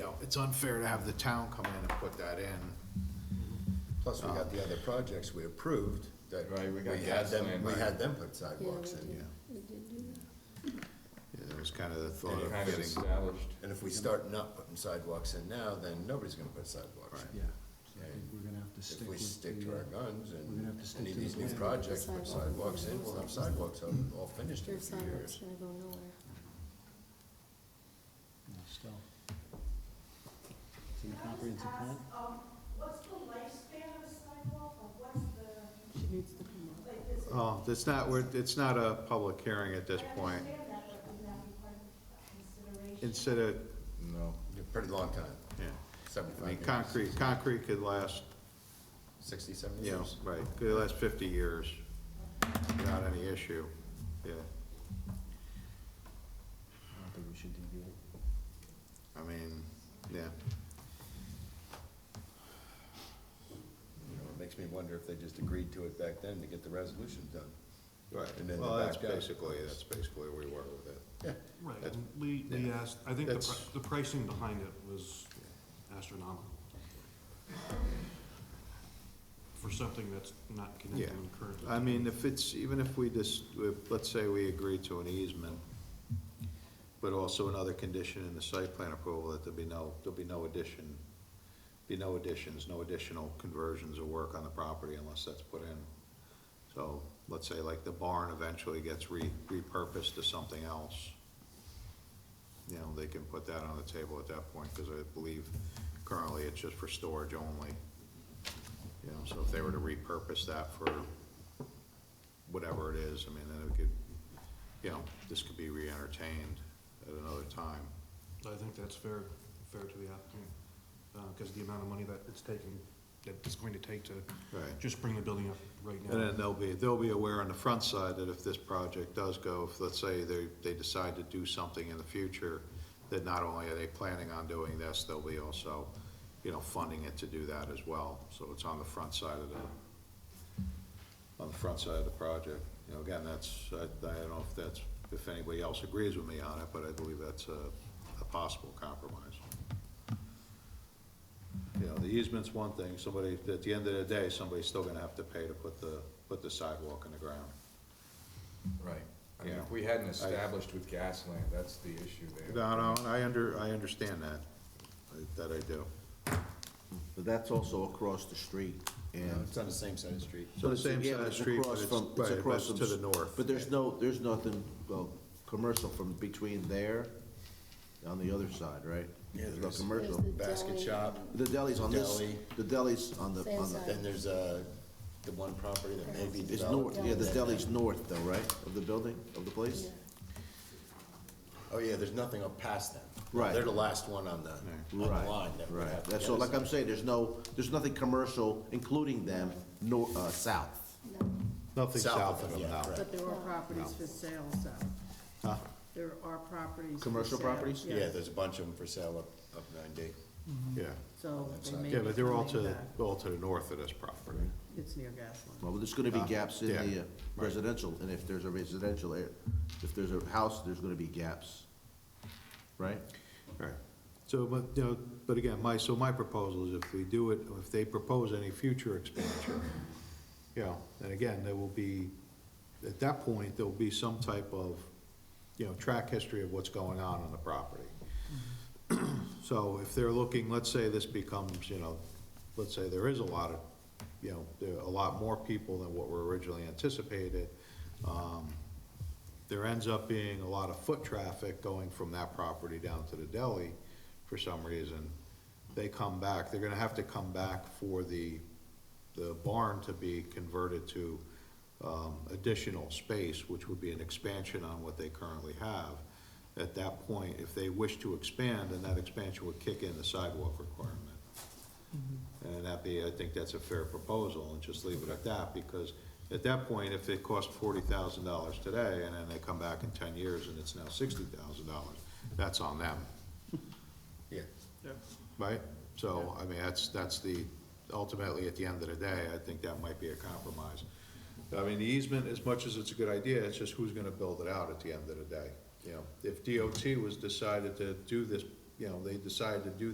it's unfair to have the town come in and put that in. Plus, we got the other projects we approved that Right, we we got had gas them, line, we right. had them put Yeah, sidewalks we in. did, we did do that. Yeah, That was kind of the And thought you of kind of getting, established, And if we start not putting sidewalks in now, then nobody's gonna put sidewalks in. Yeah, so I think we're gonna have to stick If we with stick to the, our uh, guns we're gonna have and to stick any to of the these new plan. projects put sidewalks in, we'll have sidewalks all, all finished in a Your few years. sidewalk's gonna go nowhere. you know, still. It's in the comprehensive plan? What's the lifespan of a sidewalk, or what's the, She needs to come up. like, this, oh, it's not, we're, it's not a public hearing at this I point. understand that, but would that be part of consideration? Instead of, no. A Pretty long time, yeah, I seventy-five mean, years. concrete, concrete could last, Sixty, seventy you know, years. right, could last fifty years without any issue, yeah. I don't think we should deviate. I mean, yeah, You know, it makes me wonder if they just agreed to it back then to get the resolution done. right. And then Well, the that's back guy. basically, that's basically where we were with it. Yeah, Right, That's- and we, we asked, I think the, pri- That's- the pricing behind it was astronomical. For something that's not connected Yeah. currently. I mean, if it's, even if we just, if, let's say we agree to an easement, but also another condition in the site plan approval that there be no, there'll be no addition, be no additions, no additional conversions or work on the property unless that's put in. So, let's say like the barn eventually gets re, repurposed to something else. You know, they can put that on the table at that point, cause I believe currently it's just for storage only. You know, so if they were to repurpose that for whatever it is, I mean, then it could, you know, this could be re-entertained at another time. I think that's fair, fair to the applicant, uh, cause the amount of money that it's taking, that it's going to take to Right. just bring the building up right now. And then they'll be, they'll be aware on the front side that if this project does go, if, let's say, they, they decide to do something in the future, that not only are they planning on doing this, they'll be also, you know, funding it to do that as well. So it's on the front side of the, on the front side of the project. You know, again, that's, I, I don't know if that's, if anybody else agrees with me on it, but I believe that's a, a possible compromise. You know, the easement's one thing, somebody, at the end of the day, somebody's still gonna have to pay to put the, put the sidewalk in the ground. Right. I mean, Yeah. if we hadn't established with gas lamp, that's the issue there. No, no, and I under, I understand that, that I do. But that's also across the street No, and. it's on the same side of the street. So the same Yeah, side of the it's street, but across it's, from- right, but across it's from to the s- north. But there's no, there's nothing, well, commercial from between there on the other side, right? Yeah, There's there no is. There's commercial. the Basket deli. shop, The deli's on this, Deli. the deli's on the, Same on side. the, then there's, uh, the one property that may be it's developed. north, yeah, the Deli. deli's north though, right, of the building, of the place? Yeah. Oh, yeah, there's nothing up past them. Right. They're the last one on the, on the Right, line that would right. have. That's, so like I'm saying, there's no, there's nothing commercial, including them, nor, uh, south. No. Nothing South south of of it, them, yeah, no. right. But there are properties for sale south. Huh? There are properties. for Commercial sale, properties? Yeah, there's a bunch of them for sale up, up nine D. Yeah, So they may yeah, be but they're all coming to, back. all to the north of this property. It's near gas line. Well, there's gonna be Uh, gaps in yeah, the uh, right. residential, and if there's a residential, ar- if there's a house, there's gonna be gaps, right? Right. So, but, you know, but again, my, so my proposal is if we do it, if they propose any future expansion, you know, and again, there will be, at that point, there'll be some type of, you know, track history of what's going on on the property. So if they're looking, let's say this becomes, you know, let's say there is a lot of, you know, there are a lot more people than what were originally anticipated. Um, there ends up being a lot of foot traffic going from that property down to the deli for some reason. They come back, they're gonna have to come back for the, the barn to be converted to, um, additional space, which would be an expansion on what they currently have. At that point, if they wish to expand, then that expansion would kick in the sidewalk requirement. And that'd be, I think that's a fair proposal, and just leave it at that, because at that point, if it cost forty thousand dollars today, and then they come back in ten years and it's now sixty thousand dollars, that's on them, Yeah. right? So, I mean, that's, that's the, ultimately, at the end of the day, I think that might be a compromise. I mean, the easement, as much as it's a good idea, it's just who's gonna build it out at the end of the day, you know? If DOT was decided to do this, you know, they decided to do